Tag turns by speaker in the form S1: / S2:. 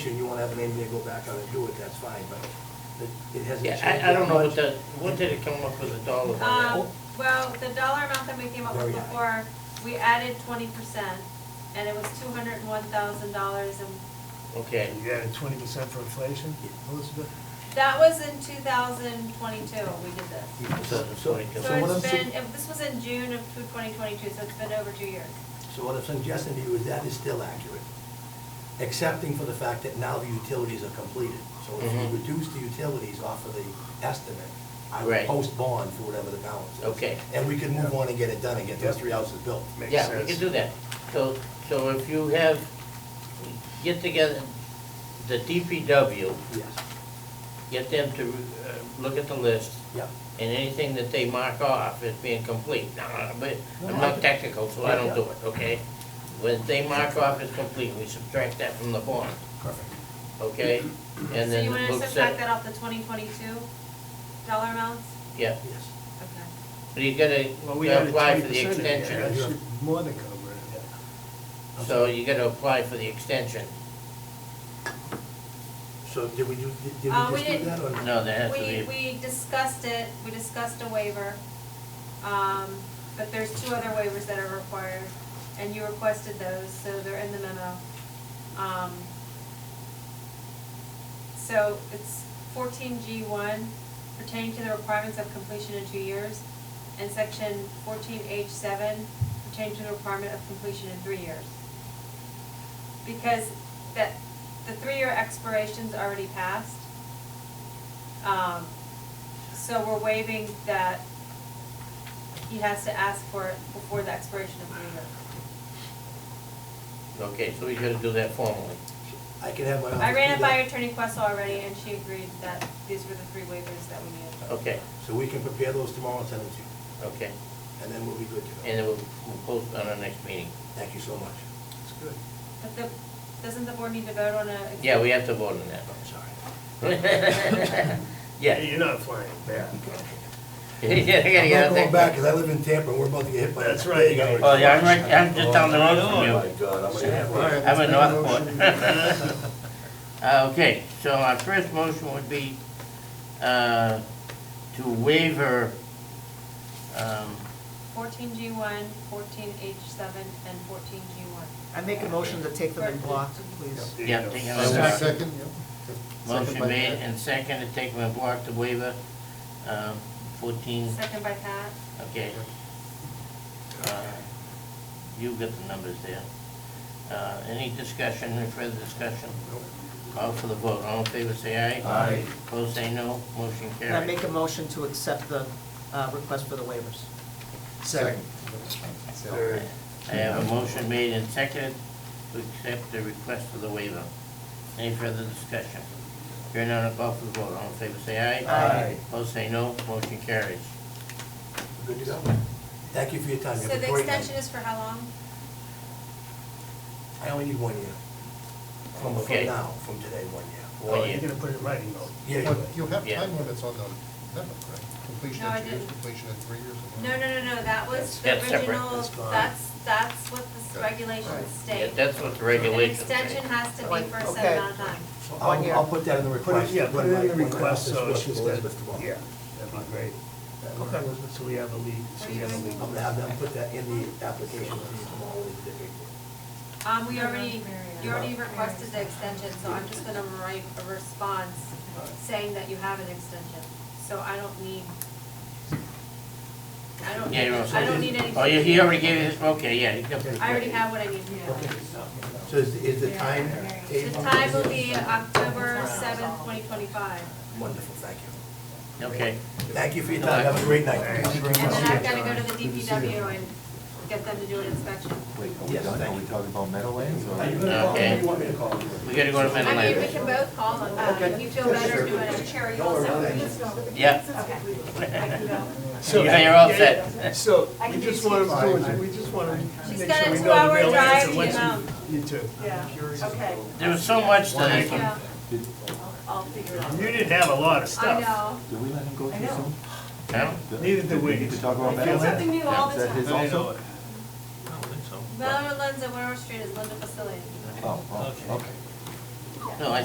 S1: wanna have an engineer go back on and do it, that's fine, but it- it hasn't
S2: Yeah,
S1: changed.
S2: I, I don't know what
S1: much.
S2: the, what did it come up with a dollar on that?
S3: Um, well, the dollar amount that we came
S2: Oh,
S3: up with
S1: Very high.
S3: before, we added twenty percent, and it was two hundred and one thousand dollars, and
S2: Okay,
S4: You added twenty percent for inflation, Elizabeth?
S3: that was in two thousand twenty-two, we did this.
S1: So- so-
S3: So
S1: what I'm
S3: it's
S1: su-
S3: been, if- this was in June of twenty twenty-two, so it's been over two years.
S1: So what I'm suggesting to you is that is still accurate, excepting for the fact that now the utilities are completed. So if
S2: Mhm.
S1: you reduce the utilities off of the estimate, I would
S2: Right.
S1: post bond for whatever the balance is.
S2: Okay.
S1: And we could move on and get it done and get those
S4: Yep.
S1: three houses built.
S4: Makes
S2: yeah, we can
S4: sense.
S2: do that. So, so if you have, get together, the DPW,
S1: Yes,
S2: get them to uh, look at the list,
S1: yeah.
S2: and anything that they mark off as being complete. Now, I- but I'm
S1: No, I-
S2: not technical, so I don't do it, okay? When they mark off as complete, we subtract that from the bond,
S1: Perfect.
S2: okay? And
S3: So
S2: then
S3: you wanna
S2: looks
S3: subtract
S2: at,
S3: that off the twenty twenty-two dollar amounts?
S2: yeah,
S1: Yes.
S3: Okay.
S2: but you gotta
S4: Well, we added
S2: apply for the
S4: 20% in there.
S2: extension.
S4: That should more than cover it.
S2: So you gotta apply for the extension.
S1: So did we do, did did we
S3: Uh, we
S1: just do
S3: didn't.
S1: that or not?
S2: No, there has to
S3: We,
S2: be,
S3: we discussed it, we discussed a waiver, um, but there's two other waivers that are required, and you requested those, so they're in the memo. Um, so it's fourteen G one pertaining to the requirements of completion in two years, and section fourteen H seven pertaining to the requirement of completion in three years. Because that, the three-year expiration's already passed, um, so we're waiving that he has to ask for it before the expiration of the year.
S2: okay, so we gotta do that formally.
S1: I can have my office.
S3: I ran it
S1: do
S3: by
S1: that.
S3: Attorney Questle already, and she agreed that these were the three waivers that we needed.
S2: Okay,
S1: So we can prepare those tomorrow and send them to you,
S2: okay,
S1: and then we'll be good to go.
S2: and then we'll we'll post on our next meeting.
S1: Thank you so much.
S4: It's good.
S3: But the, doesn't the board need to vote on a?
S2: Yeah, we have to vote on that.
S1: Oh, I'm sorry.
S2: Yeah.
S4: You're not flying back.
S2: Yeah, you gotta
S1: I'm
S2: get
S1: not
S2: out
S1: going
S2: there.
S1: back, because I live in Tampa, and we're about to get hit by.
S4: That's right.
S2: Oh, yeah, I'm right, I'm just down the road from
S5: Oh, my
S2: you.
S5: God, I'm
S4: Yeah, all
S5: gonna.
S4: right,
S2: I'm
S4: let's
S2: in
S4: make a
S2: Northport.
S4: motion.
S2: Uh, okay, so our first motion would be, uh, to waiver, um,
S3: Fourteen G one, fourteen H seven, and fourteen G one.
S6: I make a motion to take them in block, please.
S4: There you
S2: Yeah,
S4: go.
S2: take it
S5: Is there a second?
S2: motion
S5: Second by
S2: made
S5: Pat.
S2: and second to take my block to waiver, um, fourteen,
S3: Second by Pat,
S2: okay. Uh, You got the numbers there. Uh, any discussion, any further discussion? Call for the vote, all in favor say aye.
S5: Aye.
S2: Opposed say no, motion
S6: And I
S2: carried.
S6: make a motion to accept the uh, request for the waivers.
S4: Second. Third.
S2: I have a motion made and seconded to accept the request for the waiver. Any further discussion? Hearing none, I'll call for the vote. All in favor, say aye.
S6: Aye.
S2: Opposed, say no. Motion carries.
S1: Good to go. Thank you for your time. You
S3: so
S1: have a
S3: the
S1: great night.
S3: extension is for how long?
S1: I only need one year. From, from
S2: Okay.
S1: now, from today, one year.
S2: One
S4: Oh, you're
S2: year.
S4: gonna put it in writing though.
S1: Yeah,
S5: But
S1: you're
S5: you have
S2: Yeah.
S5: time limits on the amendment, right? Completion
S3: No, I
S5: in two years,
S3: didn't.
S5: completion in three years. and-
S3: No, no, no, no, that was the
S2: That's separate.
S3: original,
S1: That's fine.
S3: that's, that's what the
S5: Okay.
S6: Right.
S3: regulations
S2: Yeah,
S3: state.
S2: that's what the
S3: An
S2: regulations
S3: extension
S2: say.
S3: has to be for a
S6: Okay.
S3: set amount of time.
S1: so
S6: One
S1: I'll,
S6: year.
S1: I'll put that in the
S4: Put it,
S1: request.
S4: yeah, put it
S1: when
S4: in the
S1: my- when my
S4: request,
S1: office
S4: so
S1: works
S4: it's just
S1: with
S4: that,
S1: Elizabeth tomorrow.
S4: yeah, that'd be great.
S1: Okay.
S4: So we have a lead, so we have a
S1: I'm
S4: lead.
S1: gonna have them put that in the application for you tomorrow when you get it.
S3: Um, we already, you already requested the extension, so I'm just gonna write a response saying that you have an extension. So I don't need, I don't,
S2: Yeah, you're all
S3: I
S2: set.
S3: don't need anything.
S2: Oh, you- he already gave you his, okay, yeah. he got the-
S3: I already have what I need to know.
S1: So is, is the time?
S3: The time will be uh, October seventh, twenty twenty-five.
S1: Wonderful, thank you.
S2: Okay.
S1: Thank you for your time. Have a great night.
S4: Thank you very
S3: And then
S4: much.
S3: I've gotta go to the DPW and get them to do an inspection.
S7: Wait, are we
S1: Yes,
S7: done?
S1: thank
S7: Are we
S1: you.
S7: talking about Meadowlands or?
S1: Are you gonna call,
S2: Okay.
S1: who do you want me to call?
S2: We gotta go to
S3: I mean, we
S2: Mendeleev.
S3: can both call them, uh, if you feel better doing it. Cherry
S2: Yeah.
S4: So-
S2: Yeah, You're all set.
S4: So, we just want to, we just want to
S3: She's
S4: make
S3: got a
S4: sure we know the
S3: two-hour
S4: real
S3: drive
S4: answer
S3: to
S4: once
S3: Vietnam.
S4: you, you too.
S6: Yeah, okay.
S2: There was so much to this one.
S3: Yeah,
S6: I'll figure it
S4: You didn't have a lot of
S3: I
S4: stuff.
S3: know.
S7: Did we let him go
S6: I
S7: too
S6: know.
S7: soon?
S2: Huh?
S7: Did-
S4: Neither did we.
S7: need to talk
S4: I
S7: about
S4: feel
S7: Meadowlands?
S3: new all
S7: Is
S3: the
S7: that his
S4: I know
S7: also?
S4: it.
S3: Melvin Lenza, Winter Street is Linda Facility.
S7: Oh, oh, okay.
S2: No, I